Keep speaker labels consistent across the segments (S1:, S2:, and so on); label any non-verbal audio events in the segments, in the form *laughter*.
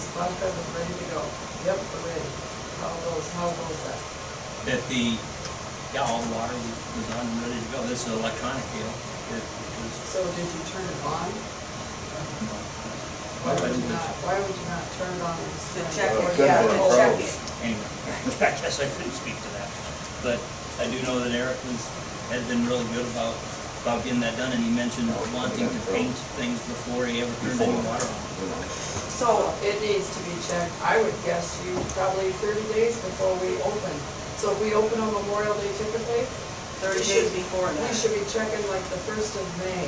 S1: All seven ready to go. Yep, we're ready. How goes, how goes that?
S2: that the, yeah, all the water was on and ready to go. This is electronic deal. It was,
S1: So did you turn it on? Why
S2: well,
S1: would
S2: it
S1: you not,
S2: was-
S1: why would you not turn it on and
S3: To
S1: send it?
S3: check,
S4: Well,
S3: it,
S4: it
S3: yeah, to
S4: couldn't
S1: Oh.
S4: be
S3: check it.
S4: approached.
S2: anyway, *laughs* I guess I couldn't speak to that. But I do know that Eric was, has been really good about, about getting that done, and he mentioned wanting to paint things before he ever turned any water on.
S4: you know.
S1: So it needs to be checked, I would guess you probably thirty days before we open. So if we open on Memorial Day typically, We
S3: Thirty days
S1: should- we
S3: before that. Mm-hmm.
S1: should be checking like the first of May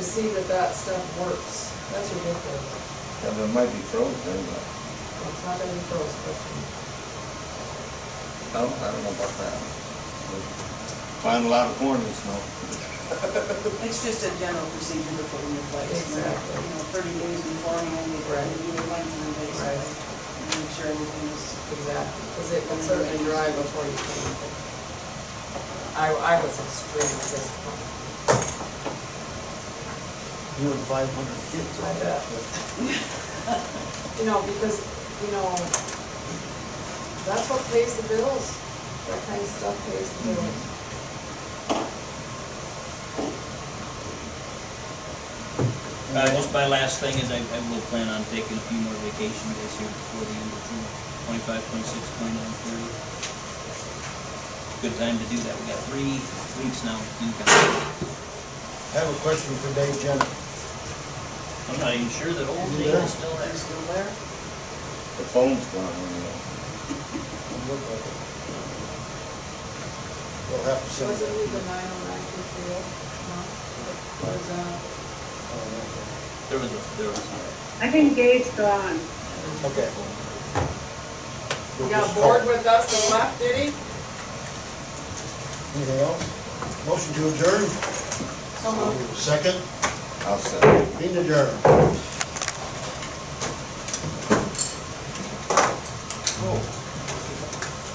S1: to see that that stuff works. That's ridiculous.
S4: Yeah, but it might be frozen, but
S1: It's not gonna be frozen, but
S4: I don't, I don't know about that. Find a lot of corn this month.
S3: It's just a general procedure to put in place.
S1: Exactly.
S3: you know, You know, thirty days beforehand, you
S1: Right.
S3: you do a lengthening
S1: Right.
S3: basically. and Make sure everything is,
S1: exactly, because it can certainly dry before you can. I, I was extremely disappointed.
S5: You and five hundred kids
S1: I
S5: on
S1: bet.
S5: that.
S1: You know, because, you know, that's what pays the bills, that kind of stuff pays the bills.
S5: Mm-hmm.
S2: Uh, just my last thing is I, I will plan on taking a few more vacation days here before the end of June, twenty-five, twenty-six, twenty-nine, thirty. Good time to do that. We got three weeks now to do that.
S5: I have a question for Dave Jenner.
S2: I'm not even sure that old Dave
S5: You there?
S2: is still there.
S3: is still there.
S4: The phone's gone, you know.
S5: Look like it. We'll have to send
S1: Was it
S5: that.
S1: the
S5: to you.
S1: nine oh nine two three oh? No? uh, Or is that?
S5: Oh,
S2: There was a, there was a,
S6: I think Dave's gone.
S5: Okay. Okay.
S1: He
S5: We'll
S1: got
S5: just
S1: bored
S5: call.
S1: with us and left, did he?
S5: Anything else? Motion to adjourn? Second,
S4: I'll send it.
S5: being adjourned.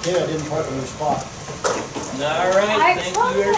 S5: Yeah, I didn't put it in the spot.
S2: all right, thank you, everybody.